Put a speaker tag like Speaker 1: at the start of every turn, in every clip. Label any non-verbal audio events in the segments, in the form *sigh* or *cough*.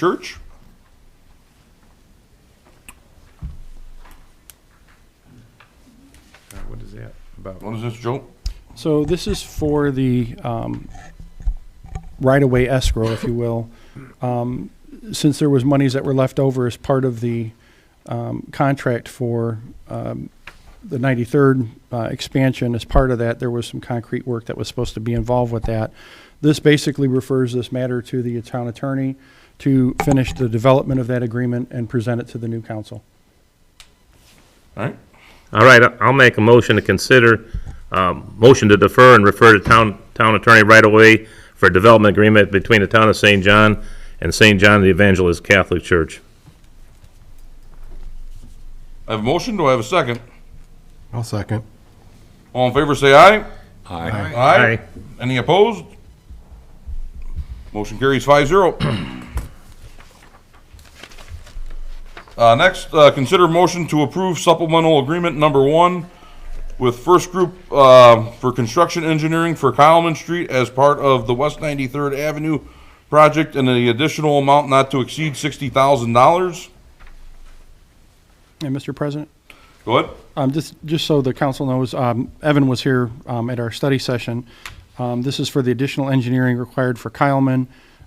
Speaker 1: Church?
Speaker 2: Uh, What is that about?
Speaker 1: What is this, Joe?
Speaker 3: So this is for the um, right-of-way escrow, if you will. Um, Since there was monies that were left over as part of the um, contract for um, the 93rd uh, expansion, as part of that, there was some concrete work that was supposed to be involved with that. This basically refers this matter to the town attorney to finish the development of that agreement and present it to the new council.
Speaker 1: All right.
Speaker 4: All right, I- I'll make a motion to consider, um, motion to defer and refer to town, town attorney right away for development agreement between the town of St. John and St. John the Evangelist Catholic Church.
Speaker 1: I have a motion. Do I have a second?
Speaker 5: I'll second.
Speaker 1: All in favor, say aye.
Speaker 5: Aye.
Speaker 1: Aye. Any opposed? Motion carries five zero. Uh, next, uh, consider motion to approve supplemental agreement number one with First Group, uh, for construction engineering for Kyleman Street as part of the West Ninety-third Avenue project and the additional amount not to exceed sixty thousand dollars.
Speaker 3: And Mr. President?
Speaker 1: Go ahead.
Speaker 3: Um, just, just so the council knows, um, Evan was here, um, at our study session. Um, this is for the additional engineering required for Kyleman,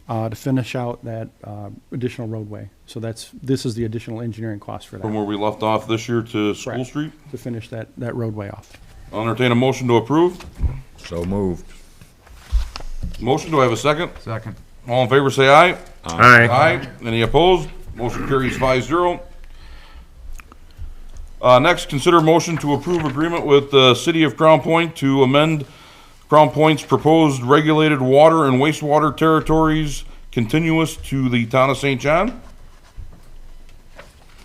Speaker 3: uh, to finish out that, uh, additional roadway. So that's, this is the additional engineering cost for
Speaker 1: From
Speaker 3: that,
Speaker 1: where we left off this year to School
Speaker 3: Correct.
Speaker 1: Street.
Speaker 3: to finish that, that roadway off.
Speaker 1: I'll entertain a motion to approve.
Speaker 5: So moved.
Speaker 1: Motion, do I have a second?
Speaker 2: Second.
Speaker 1: All in favor, say aye.
Speaker 4: Aye.
Speaker 1: Aye. Any opposed? Motion carries five zero. Uh, next, consider motion to approve agreement with the City of Crown Point to amend Crown Point's proposed regulated water and wastewater territories continuous to the town of St. John.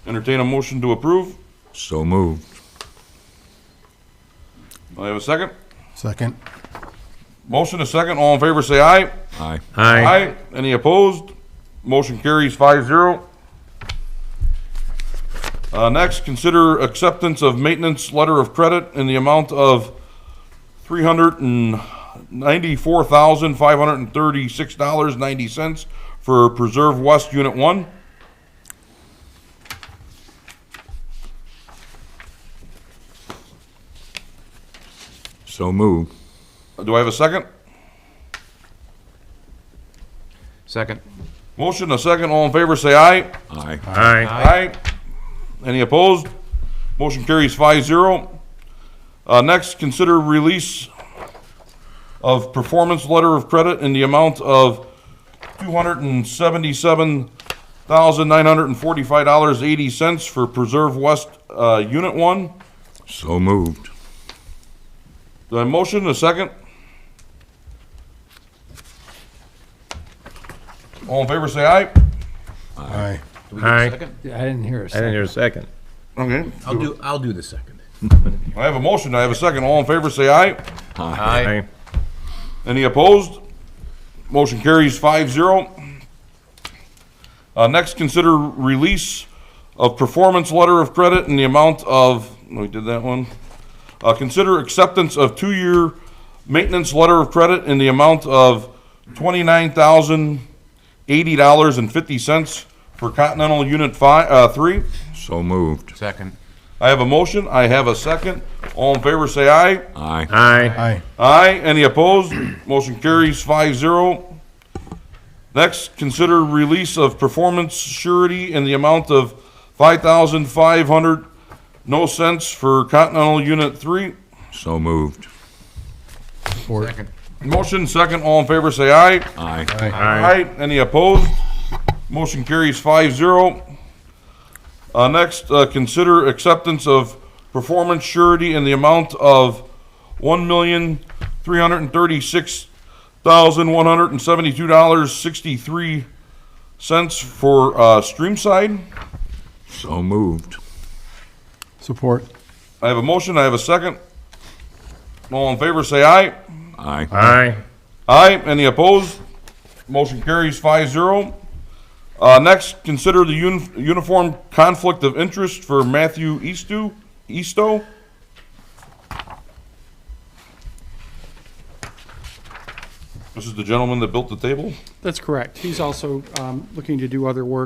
Speaker 1: Entertain a motion to approve.
Speaker 5: So moved.
Speaker 1: I have a second.
Speaker 5: Second.
Speaker 1: Motion, a second. All in favor, say aye.
Speaker 5: Aye.
Speaker 4: Aye.
Speaker 1: Aye. Any opposed? Motion carries five zero. Uh, next, consider acceptance of maintenance letter of credit in the amount of three hundred and ninety-four thousand, five hundred and thirty-six dollars, ninety cents for Preserve West Unit One.
Speaker 5: So moved.
Speaker 1: Do I have a second?
Speaker 2: Second.
Speaker 1: Motion, a second. All in favor, say aye.
Speaker 5: Aye.
Speaker 4: Aye.
Speaker 1: Aye. Any opposed? Motion carries five zero. Uh, next, consider release of performance letter of credit in the amount of two hundred and seventy-seven thousand nine hundred and forty-five dollars eighty cents for Preserve West, uh, Unit One.
Speaker 5: So moved.
Speaker 1: Do I have a motion, a second? All in favor, say aye.
Speaker 5: Aye.
Speaker 4: Aye.
Speaker 6: I didn't hear a
Speaker 4: I didn't
Speaker 6: second.
Speaker 4: hear a second.
Speaker 1: Okay.
Speaker 6: I'll do, I'll do the second.
Speaker 1: I have a motion, I have a second. All in favor, say aye.
Speaker 2: Aye.
Speaker 4: Aye.
Speaker 1: Any opposed? Motion carries 5-0. Uh, next, consider release of performance letter of credit in the amount of, we did that one. Uh, consider acceptance of two-year maintenance letter of credit in the amount of twenty-nine thousand eighty dollars and fifty cents for Continental Unit Five, uh, Three.
Speaker 5: So moved.
Speaker 2: Second.
Speaker 1: I have a motion, I have a second. All in favor, say aye.
Speaker 5: Aye.
Speaker 4: Aye.
Speaker 5: Aye.
Speaker 1: Aye, any opposed? *clears throat* Motion carries five zero. Next, consider release of performance surety in the amount of five thousand five hundred, no cents for Continental Unit Three.
Speaker 5: So moved.
Speaker 2: Second.
Speaker 1: Motion, second, all in favor, say aye.
Speaker 5: Aye.
Speaker 4: Aye.
Speaker 1: Any opposed? Motion carries five zero. Uh, next, uh, consider acceptance of performance surety in the amount of one million, three hundred and thirty-six thousand, one hundred and seventy-two dollars, sixty-three cents for, uh, Streamside.
Speaker 5: So moved.
Speaker 3: Support.
Speaker 1: I have a motion, I have a second. All in favor, say aye.
Speaker 5: Aye.
Speaker 4: Aye.
Speaker 1: Aye, any opposed? Motion carries five zero. Uh, next, consider the uni- uniform conflict of interest for Matthew Eastu, Easto. This is the gentleman that built the table?
Speaker 3: That's correct. He's also um, looking to do other work